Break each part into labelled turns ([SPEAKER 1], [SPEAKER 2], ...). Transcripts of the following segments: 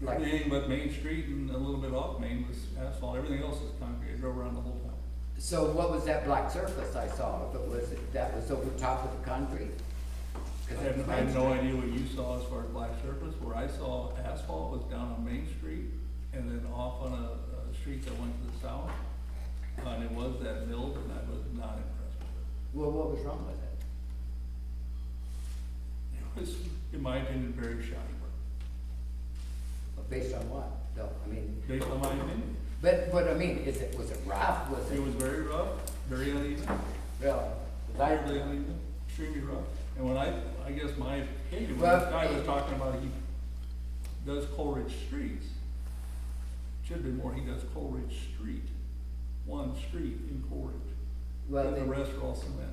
[SPEAKER 1] Like anything but Main Street and a little bit off Main was asphalt, everything else is concrete, I drove around the whole town.
[SPEAKER 2] So what was that black surface I saw? If it was, that was over top of the concrete? 'Cause
[SPEAKER 1] I
[SPEAKER 2] it's
[SPEAKER 1] have, I have no
[SPEAKER 2] plaster.
[SPEAKER 1] idea what you saw as far as black surface, where I saw asphalt was down on Main Street and then off on a, a street that went to the south. And it was that milled and I was not impressed with
[SPEAKER 2] Well, what was wrong with it?
[SPEAKER 1] it. It was, in my opinion, very shoddy work,
[SPEAKER 2] Based on what? No, I mean,
[SPEAKER 1] based on my opinion.
[SPEAKER 2] but, but I mean, is it, was it rough? Was
[SPEAKER 1] It
[SPEAKER 2] it,
[SPEAKER 1] was very rough, very uneven,
[SPEAKER 2] well,
[SPEAKER 1] very uneven, extremely rough. And when I, I guess my opinion, when
[SPEAKER 2] Well,
[SPEAKER 1] this guy was
[SPEAKER 2] it-
[SPEAKER 1] talking about he does Coleridge Streets, should be more, he does Coleridge Street, one street in Coleridge.
[SPEAKER 2] well,
[SPEAKER 1] And the
[SPEAKER 2] then,
[SPEAKER 1] rest are all cement,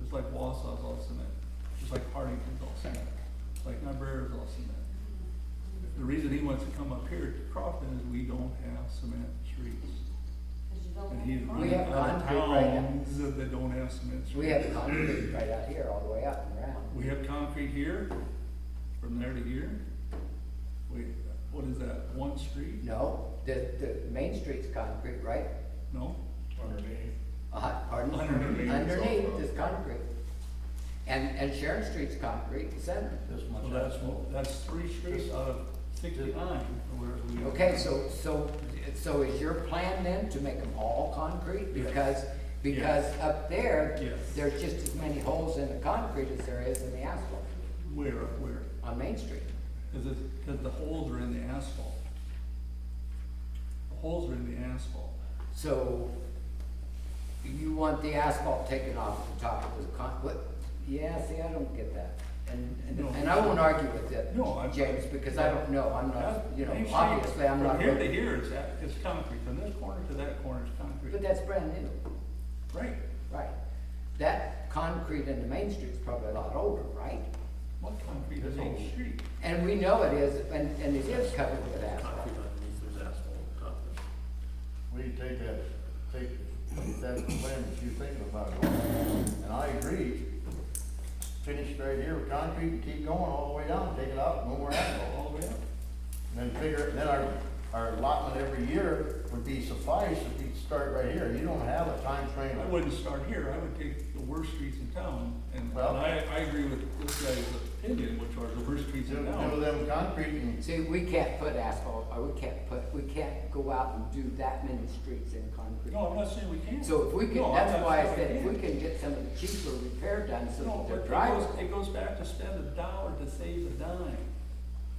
[SPEAKER 1] just like Wausau's all cement, just like Hardington's all cement, like Niobrara's all cement. The reason he wants to come up here to Crofton is we don't have cement streets. And he's
[SPEAKER 2] We
[SPEAKER 1] running out
[SPEAKER 2] have
[SPEAKER 1] of
[SPEAKER 2] concrete right now.
[SPEAKER 1] towns that that don't have cement
[SPEAKER 2] we
[SPEAKER 1] streets.
[SPEAKER 2] have concrete right out here all the way up and around.
[SPEAKER 1] We have concrete here, from there to here. Wait, what is that, one street?
[SPEAKER 2] No, the, the main street's concrete, right?
[SPEAKER 1] No?
[SPEAKER 3] underneath.
[SPEAKER 2] Uh, pardon?
[SPEAKER 1] Underneath.
[SPEAKER 2] Underneath is concrete. And, and Sharon Street's concrete, the center.
[SPEAKER 3] This
[SPEAKER 1] So
[SPEAKER 3] much
[SPEAKER 1] that's,
[SPEAKER 3] asphalt.
[SPEAKER 1] that's three streets out of sixty-nine, or whatever we.
[SPEAKER 2] Okay, so, so, so is your plan then to make them all concrete?
[SPEAKER 1] Yes.
[SPEAKER 2] Because, because up there,
[SPEAKER 1] Yes.
[SPEAKER 2] there's just as many holes in the concrete as there is in the asphalt
[SPEAKER 1] Where, where?
[SPEAKER 2] on Main Street.
[SPEAKER 1] Cause it's, cause the holes are in the asphalt. The holes are in the asphalt.
[SPEAKER 2] So you want the asphalt taken off the top of the con, what? Yeah, see, I don't get that. And, and-
[SPEAKER 1] No.
[SPEAKER 2] and I won't argue with that,
[SPEAKER 1] No, I'm-
[SPEAKER 2] James, because I don't know, I'm not, you know,
[SPEAKER 1] Main Street,
[SPEAKER 2] obviously, I'm not.
[SPEAKER 1] From here
[SPEAKER 2] really-
[SPEAKER 1] to here, it's, a- it's concrete, from this corner to that corner is
[SPEAKER 2] But
[SPEAKER 1] concrete.
[SPEAKER 2] that's brand new,
[SPEAKER 1] Right,
[SPEAKER 2] right? That concrete in the Main Street's probably a lot older, right?
[SPEAKER 1] what concrete is on the street?
[SPEAKER 2] And we know it is, and, and it is covered with asphalt.
[SPEAKER 4] Concrete underneath, there's asphalt on top of it.
[SPEAKER 3] We take that, take that plan that you're thinking about, and I agree, finish right here with concrete, and keep going all the way down, take it out, no more asphalt.
[SPEAKER 1] All the way up.
[SPEAKER 3] And then figure, then our, our allotment every year would be suffice if we start right here, you don't have a time frame.
[SPEAKER 1] I wouldn't start here, I would take the worst streets in town, and and
[SPEAKER 3] Well-
[SPEAKER 1] I, I agree with this guy's opinion, which are the worst streets
[SPEAKER 3] Do,
[SPEAKER 1] in
[SPEAKER 3] do
[SPEAKER 1] town.
[SPEAKER 3] them concrete and,
[SPEAKER 2] See, we can't put asphalt, or we can't put, we can't go out and do that many streets in
[SPEAKER 1] No,
[SPEAKER 2] concrete.
[SPEAKER 1] I'm not saying we can't.
[SPEAKER 2] So if we
[SPEAKER 1] No,
[SPEAKER 2] can,
[SPEAKER 1] I'm
[SPEAKER 2] that's
[SPEAKER 1] not
[SPEAKER 2] why I
[SPEAKER 1] saying
[SPEAKER 2] said, if we
[SPEAKER 1] can't.
[SPEAKER 2] can get some of the cheaper repair done, so
[SPEAKER 1] No,
[SPEAKER 2] that
[SPEAKER 1] but
[SPEAKER 2] they're
[SPEAKER 1] it goes,
[SPEAKER 2] drivable.
[SPEAKER 1] it goes back to spend a dollar to save a dime.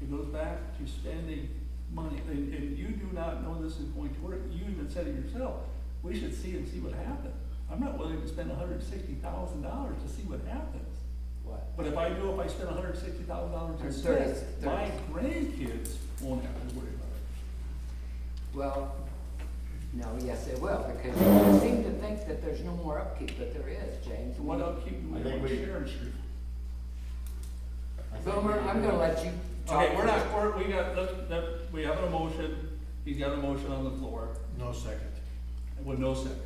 [SPEAKER 1] It goes back to spending money, and, and you do not know this is going to work, you even said it yourself, we should see and see what happens. I'm not willing to spend hundred and sixty thousand dollars to see what happens.
[SPEAKER 2] What?
[SPEAKER 1] But if I do, if I spend hundred and sixty thousand dollars
[SPEAKER 2] Or
[SPEAKER 1] in
[SPEAKER 2] thirty-
[SPEAKER 1] this,
[SPEAKER 2] thirty.
[SPEAKER 1] my grandkids won't have to worry about
[SPEAKER 2] Well, no, yes, they will, because they seem to think that there's no more upkeep, but there is, James.
[SPEAKER 1] it. What upkeep do
[SPEAKER 3] I
[SPEAKER 1] we
[SPEAKER 3] think
[SPEAKER 1] have on
[SPEAKER 3] we-
[SPEAKER 1] Sharon Street?
[SPEAKER 3] I think
[SPEAKER 2] Boomer, I'm gonna let you talk.
[SPEAKER 1] Okay, we're not, we're, we got, let's, that, we have an emotion, he's got a motion on the floor,
[SPEAKER 4] No second.
[SPEAKER 1] with no second.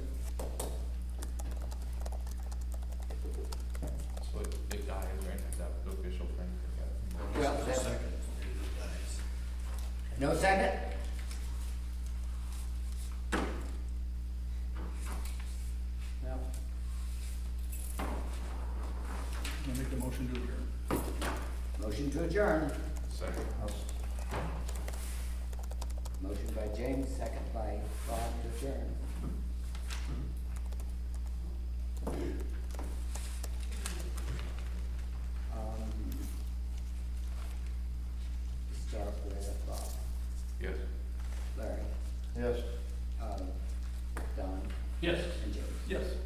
[SPEAKER 5] So it- it dies, right, is that the official thing?
[SPEAKER 2] Well,
[SPEAKER 4] No
[SPEAKER 2] that-
[SPEAKER 4] second, it dies.
[SPEAKER 2] No second? No.
[SPEAKER 1] I'm gonna make the motion to adjourn.
[SPEAKER 2] Motion to adjourn.
[SPEAKER 5] Second.
[SPEAKER 2] Motion by James, second by Bob to adjourn. Um, Start with uh, Bob,
[SPEAKER 5] Yes.
[SPEAKER 2] Larry,
[SPEAKER 3] Yes.
[SPEAKER 2] um, Don,
[SPEAKER 1] Yes.
[SPEAKER 2] and James.
[SPEAKER 1] Yes.